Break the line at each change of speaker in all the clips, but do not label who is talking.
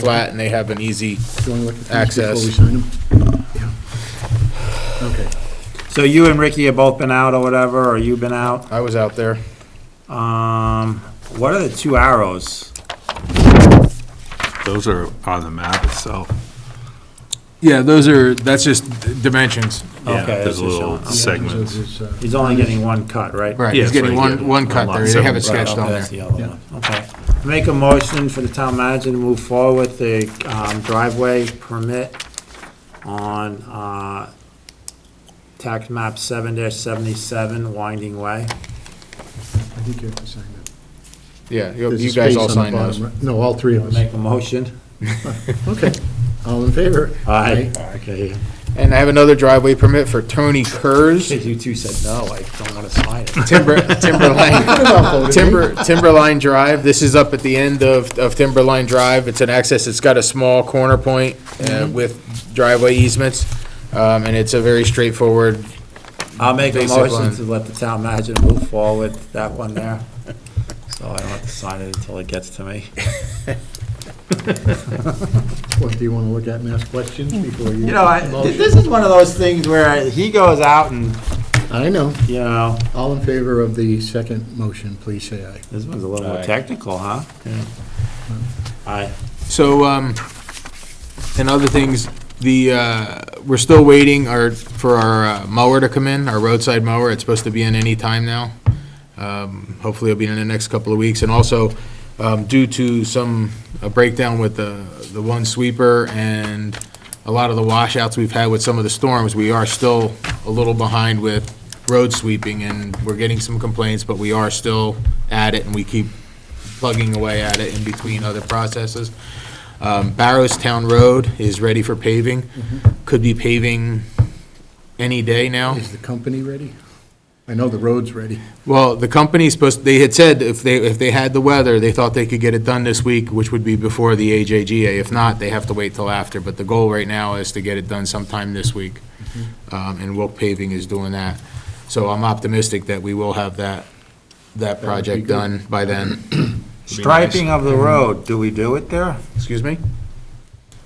flat and they have an easy,
Do you want to look at these before
Access.
we sign them? Yeah. Okay.
So you and Ricky have both been out or whatever, or you've been out.
I was out there.
Um, what are the two arrows?
Those are on the map itself.
Yeah, those are, that's just dimensions.
Yeah,
Okay, that's
There's
just
little
showing.
segments.
So it's, uh,
He's only getting one cut, right?
Right,
Yeah,
he's
it's
getting
right
one,
here.
one cut
Lot
there, they
seven.
have it
Right,
sketched
okay,
on
that's
there.
the other one. Okay. Make a motion for the town manager to move forward with the um, driveway permit on uh, tax map seven seventy-seven Winding Way.
I think you have to sign that.
Yeah, you
There's a
you guys
space
all
on the
signed
bottom,
those.
right? No, all three of us.
Make a motion.
Okay. All in favor?
Aye. Okay.
And I have another driveway permit for Tony Kurz,
You two said no, I don't want to sign it.
Timber, Timberline,
Aye.
Timber, Timberline Drive. This is up at the end of, of Timberline Drive. It's an access, it's got a small corner point uh,
Mm-hmm.
with driveway easements. Um, and it's a very straightforward,
I'll make a
Basic
motion
line.
to let the town manager move forward that one there. So I don't have to sign it until it gets to me.
What, do you want to look at and ask questions before you?
You know, I,
Motion.
this is one of those things where he goes out and,
I know.
you know,
All in favor of the second motion, please say aye.
this one's a little more
Aye.
technical, huh? Aye.
So, um, and other things, the, uh, we're still waiting our, for our uh, mower to come in, our roadside mower. It's supposed to be in any time now. Um, hopefully it'll be in the next couple of weeks. And also, um, due to some, a breakdown with the, the one sweeper and a lot of the washouts we've had with some of the storms, we are still a little behind with road sweeping and we're getting some complaints, but we are still at it and we keep plugging away at it in between other processes. Um, Barrowstown Road is ready for paving, could be paving any day
Oh.
now.
Is the company ready? I know the road's ready.
Well, the company's supposed, they had said if they, if they had the weather, they thought they could get it done this week, which would be before the AJGA. If not, they have to wait till after, but the goal right now is to get it done sometime this week. Um, and Wilk Paving is doing that. So I'm optimistic that we will have that, that
be
project
good.
done by then.
Striping of the road, do we do it there?
Excuse me?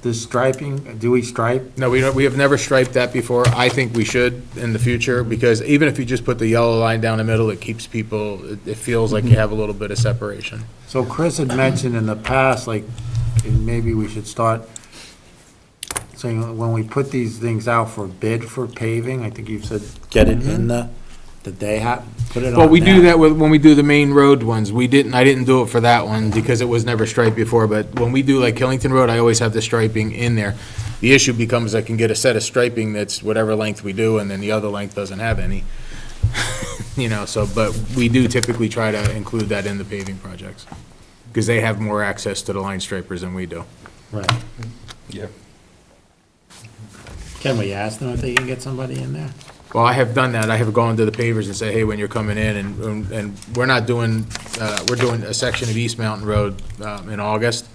The striping, do we stripe?
no, we don't, we have never striped that before. I think we should in the future because even if you just put the yellow line down the middle, it keeps people, it- it feels like
Mm-hmm.
you have a little bit of separation.
So Chris had mentioned in the past, like, and maybe we should start saying, when we put these things out for bid for paving, I think you've said, get it in the, that they have, put it on
Well, we do
them.
that with, when we do the main road ones, we didn't, I didn't do it for that one because it was never striped before, but when we do like Killington Road, I always have the striping in there.
The issue becomes I can get a set of striping that's whatever length we do, and then the other length doesn't have any. You know, so, but we do typically try to include that in the paving projects, because they have more access to the line stripers than we do.
Right.
Yep.
Can we ask them if they can get somebody in there?
Well, I have done that, I have gone to the pavers and say, hey, when you're coming in, and, um, and- and we're not doing, uh, we're doing a section of East Mountain Road, um, in August,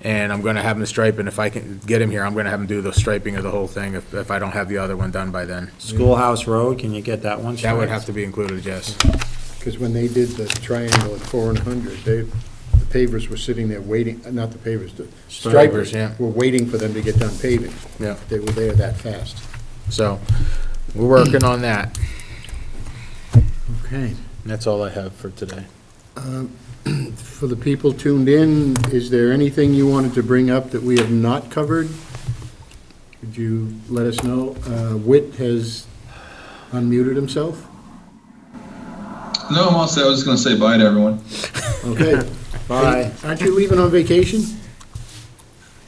and I'm gonna have them stripe, and if I can get him here, I'm gonna have him do the striping of the whole thing, if, if I don't have the other one done by then.
Schoolhouse Road, can you get that one?
That would have to be included, yes.
Because when they did the triangle at four and hundred, they, the pavers were sitting there waiting, uh, not the pavers, the
Stripers,
stripers
yeah.
were waiting for them to get done paving.
Yeah.
They were there that fast.
So, we're working on that.
Okay.
That's all I have for today.
For the people tuned in, is there anything you wanted to bring up that we have not covered? Could you let us know? Uh, Whit has unmuted himself?
No, I'm all set. I was just going to say bye to everyone.
Okay.
Bye.
Aren't you leaving on vacation?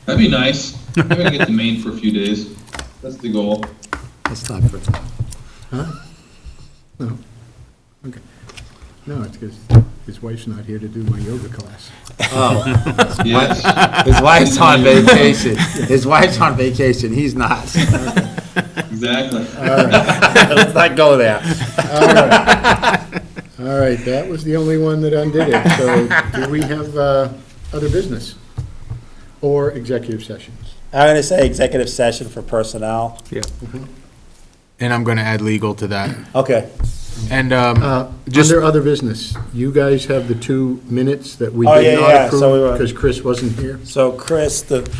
That'd be nice. I'm going to get to Maine for a few days. That's the goal.
That's not for,
No, it's because his wife's not here to do my yoga class.
oh,
Yes.
his wife's on vacation. His wife's on vacation, he's not.
exactly.
Let's not go there.
All right, that was the only one that undid it. So do we have uh, other business or executive sessions?
I'm gonna say executive session for personnel.
And I'm gonna add legal to that.
Okay.
And, um,
Uh,
Just-
Under other business, you guys have the two minutes that we
Oh,
did
yeah,
not
yeah, so we
approve
were-
because Chris wasn't here.
So Chris, the